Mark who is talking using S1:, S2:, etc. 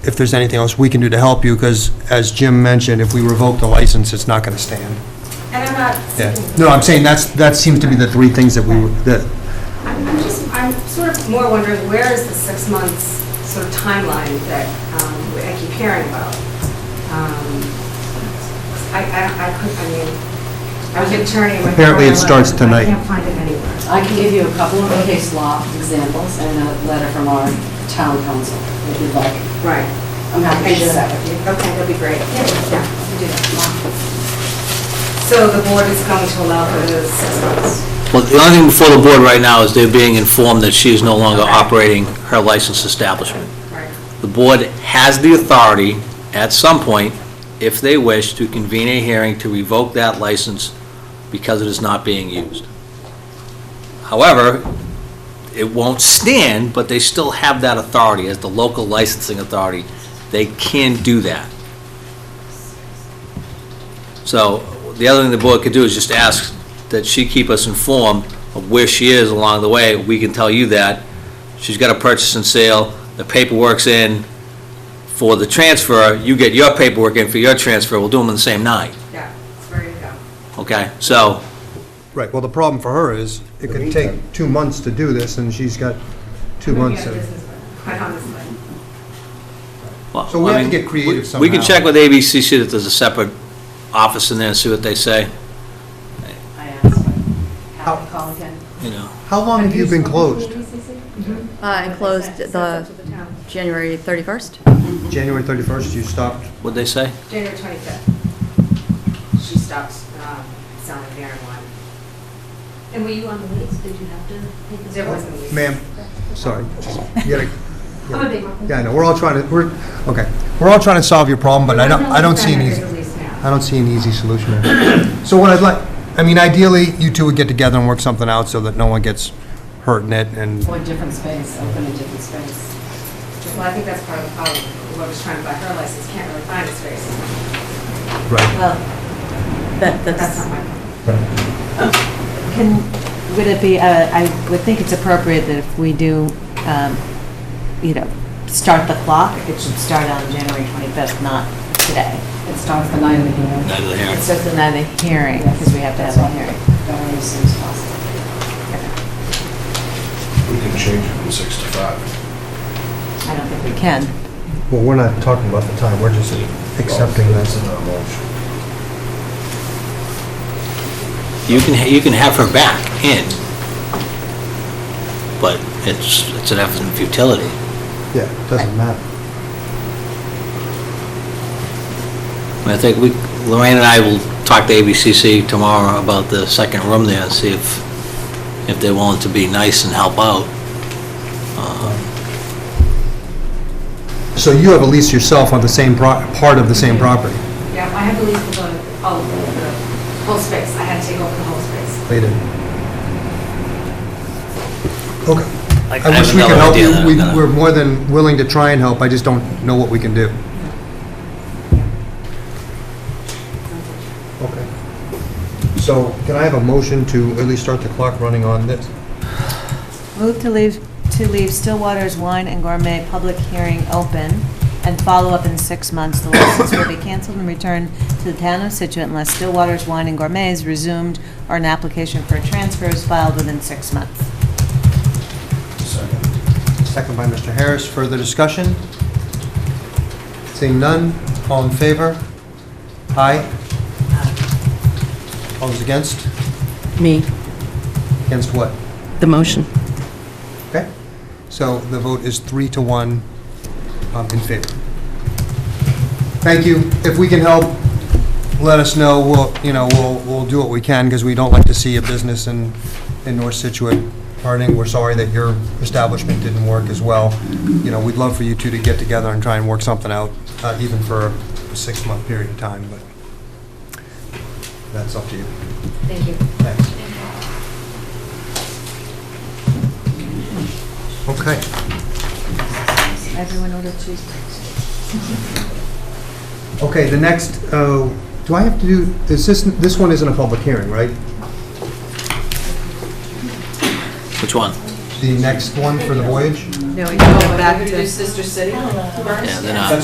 S1: if there's anything else we can do to help you, because as Jim mentioned, if we revoke the license, it's not going to stand.
S2: And I'm not
S1: Yeah.
S2: seeking,
S1: No, I'm saying that's, that seems to be the three things that we, were- that,
S2: I'm I'm just, I'm sort of more wondering, where is the six months sort of timeline that um, I keep hearing about? Um, I, I I couldn't, I mean, I was an attorney. when-
S1: Apparently it starts tonight.
S2: I can't find it anywhere.
S3: I can give you a couple of case law examples and a letter from our town council, if you'd like.
S2: Right.
S3: I'm happy to share that with you.
S2: Okay, that'd be great. Yeah.
S3: We can do that tomorrow.
S2: So the board is going to allow for the six months?
S4: Well, the only thing before the board right now is they're being informed that she is no longer operating her licensed establishment.
S2: Right.
S4: The board has the authority, at some point, if they wish, to convene a hearing to revoke that license because it is not being used. However, it won't stand, but they still have that authority as the local licensing authority. They can do that. So the other thing the board could do is just ask that she keep us informed of where she is along the way. We can tell you that. She's got a purchase and sale, the paperwork's in for the transfer, you get your paperwork in for your transfer, we'll do them on the same night,
S2: Yeah, there you go.
S4: okay? So,
S1: right, well, the problem for her is, it could take two months to do this, and she's got two months.
S2: Maybe I
S1: of-
S2: just- Quite honestly.
S4: well,
S1: So we have
S4: I
S1: to
S4: mean,
S1: get creative
S4: we- We can
S1: somehow.
S4: check with ABC, see that there's a separate office in there, and see what they say,
S3: I asked, have to call again.
S4: you know?
S1: How long have you been closed?
S5: Mm-hmm.
S6: Uh, and closed
S2: That's
S6: the
S2: up to the town.
S6: January 31st?
S1: January 31st, you stopped.
S4: What'd they say?
S2: January 25th. She stopped um, selling marijuana.
S5: And were you on the lease? Did you have to take the...
S2: There wasn't a lease.
S1: Ma'am, sorry. just- you gotta-
S5: I'm a big one.
S1: Yeah, I know, we're all trying to, we're, okay, we're all trying to solve your problem, but I don't, I don't see an
S2: There's
S1: easy.
S2: a lease now.
S1: I don't see an easy solution. there. So what I'd like, I mean, ideally, you two would get together and work something out so that no one gets hurt in it, and,
S3: Or Oh, a different space, open a different space.
S2: Well, I think that's part of the problem. Whoever's trying to buy her license can't really find a space.
S1: right.
S7: Well, that,
S2: That's
S7: that's,
S2: not my problem.
S7: can, would it be, uh, I would think it's appropriate that if we do, um, you know, start the clock, it should start on January 25th, not today.
S3: It starts the night of the hearing.
S4: Neither here.
S7: It's just another hearing, because we have to have a hearing.
S3: Don't worry, as soon as possible.
S8: We can change it from six to five.
S7: I don't think we can.
S1: Well, we're not talking about the time, we're just accepting
S8: That's
S1: this.
S8: in our motion.
S4: You can, ha- you can have her back in, but it's, it's an effort in futility.
S1: Yeah, it doesn't matter.
S4: I think we, Lorraine and I will talk to ABCC tomorrow about the second room there, and see if, if they're willing to be nice and help out.
S1: So you have a lease yourself on the same, pro- part of the same property?
S2: Yeah, I have a lease for the, all of the whole space. I had to take over the whole space.
S1: They did. Okay.
S4: I
S1: I
S4: have
S1: wish we could
S4: another
S1: help
S4: idea
S1: you.
S4: that I'm
S1: We-
S4: gonna-
S1: We're more than willing to try and help, I just don't know what we can do. Okay. So can I have a motion to at least start the clock running on this?
S7: Move to leave, to leave Stillwater's Wine and Gourmet public hearing open and follow up in six months. The license will be canceled and returned to the town of Situate unless Stillwater's Wine and Gourmet is resumed or an application for a transfer is filed within six months.
S8: Second.
S1: Second by Mr. Harris. Further discussion? Seeing none, all in favor? Aye? All those against?
S9: Me,
S1: Against what?
S9: the motion.
S1: Okay. So the vote is three to one um, in favor. Thank you. If we can help, let us know. We'll, you know, we'll, we'll do what we can because we don't like to see a business in, in North Situate hurting. We're sorry that your establishment didn't work as well. You know, we'd love for you two to get together and try and work something out, uh, even for a six-month period of time, but that's up to you.
S2: Thank you.
S1: Thanks. Okay.
S7: Everyone order cheese.
S1: Okay, the next, uh, do I have to do, is this, this one isn't a public hearing, right?
S4: Which one?
S10: the next one for the voyage?
S11: No, we
S1: Going back to-
S7: Sister City.
S4: Yeah, they're not.